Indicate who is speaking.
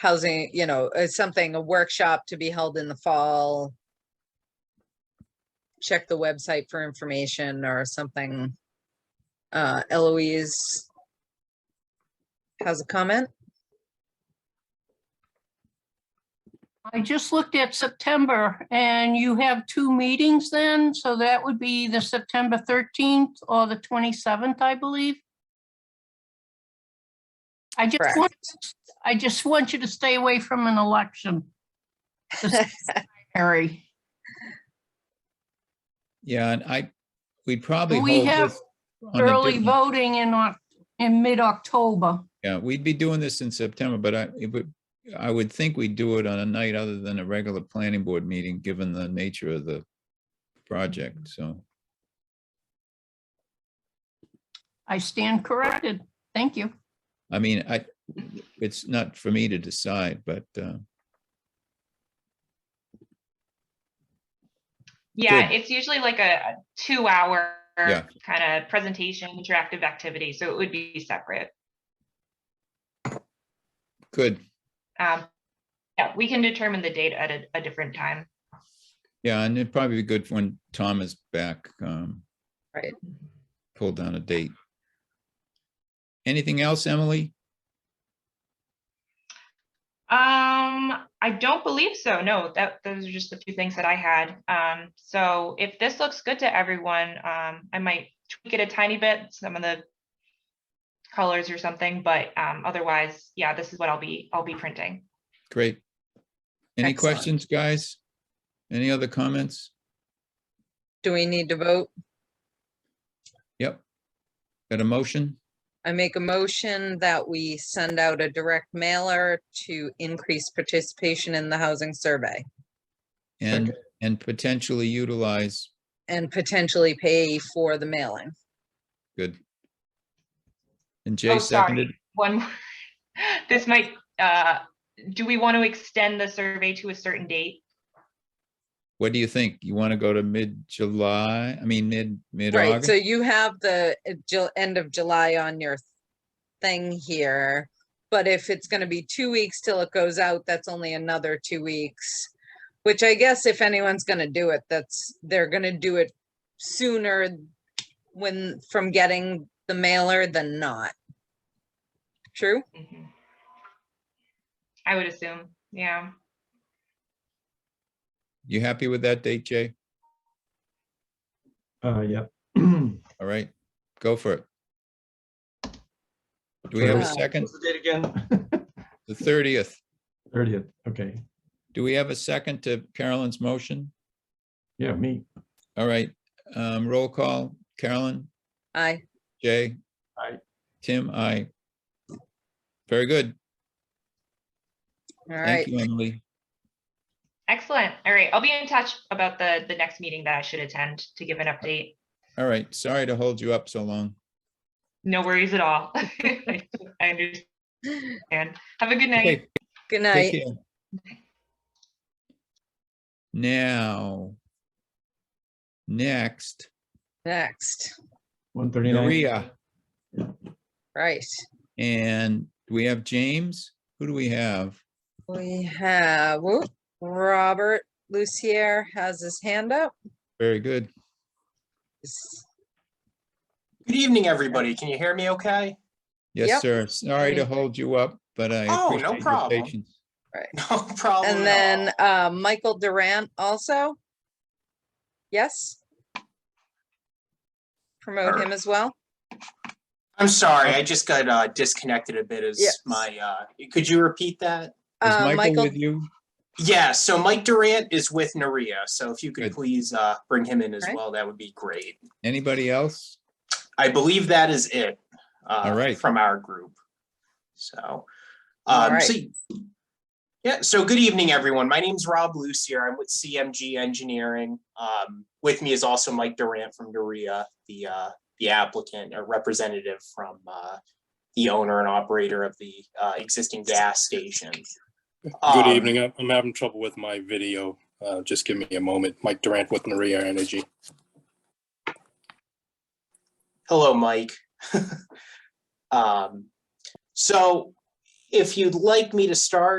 Speaker 1: housing, you know, uh, something, a workshop to be held in the fall. Check the website for information or something. Uh, Eloise has a comment?
Speaker 2: I just looked at September and you have two meetings then, so that would be the September thirteenth or the twenty-seventh, I believe. I just
Speaker 1: Correct.
Speaker 2: want, I just want you to stay away from an election. This Harry,
Speaker 3: Yeah, and I, we'd probably
Speaker 2: we
Speaker 3: hold
Speaker 2: have
Speaker 3: this, on a
Speaker 2: early
Speaker 3: different-
Speaker 2: voting in, Oc- in mid-October.
Speaker 3: yeah, we'd be doing this in September, but I, it would, I would think we'd do it on a night other than a regular planning board meeting, given the nature of the project, so.
Speaker 2: I stand corrected. Thank you.
Speaker 3: I mean, I, it's not for me to decide, but, uh,
Speaker 4: Yeah,
Speaker 3: Good.
Speaker 4: it's usually like a two hour
Speaker 3: Yeah.
Speaker 4: kind of presentation, interactive activity. So it would be separate.
Speaker 3: good.
Speaker 4: Um, yeah, we can determine the date at a, a different time.
Speaker 3: Yeah, and it'd probably be good for when Tom is back. um,
Speaker 1: Right.
Speaker 3: Pull down a date. Anything else, Emily?
Speaker 4: Um, I don't believe so. No, that those are just the two things that I had. Um, so if this looks good to everyone, um, I might tweak it a tiny bit, some of the colors or something, but um, otherwise, yeah, this is what I'll be I'll be printing.
Speaker 3: Great. Any
Speaker 1: Excellent.
Speaker 3: questions, guys? Any other comments?
Speaker 1: Do we need to vote?
Speaker 3: Yep. Got a motion?
Speaker 1: I make a motion that we send out a direct mailer to increase participation in the housing survey
Speaker 3: And, and potentially utilize,
Speaker 1: and potentially pay for the mailing.
Speaker 3: good. And
Speaker 4: Oh,
Speaker 3: Jay
Speaker 4: sorry.
Speaker 3: seconded,
Speaker 4: One, more. this might, uh, do we want to extend the survey to a certain date?
Speaker 3: what do you think? You want to go to mid-July? I mean, mid,
Speaker 1: Right, so
Speaker 3: mid-August?
Speaker 1: you have the uh, Ju- end of July on your thing here. But if it's gonna be two weeks till it goes out, that's only another two weeks. Which I guess if anyone's gonna do it, that's, they're gonna do it sooner when, from getting the mailer than not. True?
Speaker 4: Mhm. I would assume, yeah.
Speaker 3: You happy with that date, Jay?
Speaker 5: Uh, yep.
Speaker 3: All right, go for it. Do we have a
Speaker 1: Uh,
Speaker 3: second?
Speaker 5: What's the date again?
Speaker 3: The thirtieth.
Speaker 5: Thirtieth, okay,
Speaker 3: Do we have a second to Carolyn's motion?
Speaker 5: yeah, me,
Speaker 3: All right, um, roll call. Carolyn,
Speaker 1: Aye,
Speaker 3: Jay?
Speaker 5: Aye.
Speaker 3: Tim, I. Very good.
Speaker 1: all
Speaker 3: Thank
Speaker 1: right,
Speaker 3: you, Emily.
Speaker 4: Excellent. All right, I'll be in touch about the, the next meeting that I should attend to give an update.
Speaker 3: All right, sorry to hold you up so long.
Speaker 4: No worries at all. I understand. Have a good night.
Speaker 3: Okay,
Speaker 1: good
Speaker 3: take
Speaker 1: night.
Speaker 3: care. Now. Next,
Speaker 1: Next,
Speaker 5: one thirty-nine.
Speaker 3: Maria,
Speaker 1: right,
Speaker 3: and we have James. Who do we have?
Speaker 1: we have, whoop, Robert Lucier has his hand up.
Speaker 3: Very good.
Speaker 1: Is-
Speaker 6: Good evening, everybody. Can you hear me okay?
Speaker 3: Yes,
Speaker 1: Yep.
Speaker 3: sir. Sorry to
Speaker 1: Okay.
Speaker 3: hold you up, but I
Speaker 6: Oh, no
Speaker 3: appreciate your
Speaker 6: problem.
Speaker 3: patience.
Speaker 6: No
Speaker 3: Oh,
Speaker 6: problem.
Speaker 1: And
Speaker 6: at all.
Speaker 1: then uh, Michael Durant also? Yes? Promote him
Speaker 6: Sure.
Speaker 1: as well?
Speaker 6: I'm sorry, I just got uh, disconnected a bit as
Speaker 1: Yes.
Speaker 6: my, uh, could you repeat that?
Speaker 1: Uh,
Speaker 3: Is Michael
Speaker 1: Michael,
Speaker 3: with you?
Speaker 6: Yeah, so Mike Durant is with Naria, so if you
Speaker 3: Good.
Speaker 6: could please uh, bring him in as
Speaker 1: Right.
Speaker 6: well, that would be great.
Speaker 3: Anybody else?
Speaker 6: I believe that is it. uh,
Speaker 3: All right.
Speaker 6: From our group. So.
Speaker 1: All
Speaker 6: um,
Speaker 1: right.
Speaker 6: so- Yeah, so good evening, everyone. My name's Rob Lucier. I'm with CMG Engineering. Um, with me is also Mike Durant from Urea, the, uh, the applicant or representative from, uh, the owner and operator of the, uh, existing gas station.
Speaker 7: Good
Speaker 6: Um,
Speaker 7: evening. I- I'm having trouble with my video. Uh, Just give me a moment. Mike Durant with Maria Energy.
Speaker 6: Hello, Mike. Um, so if you'd like me to start,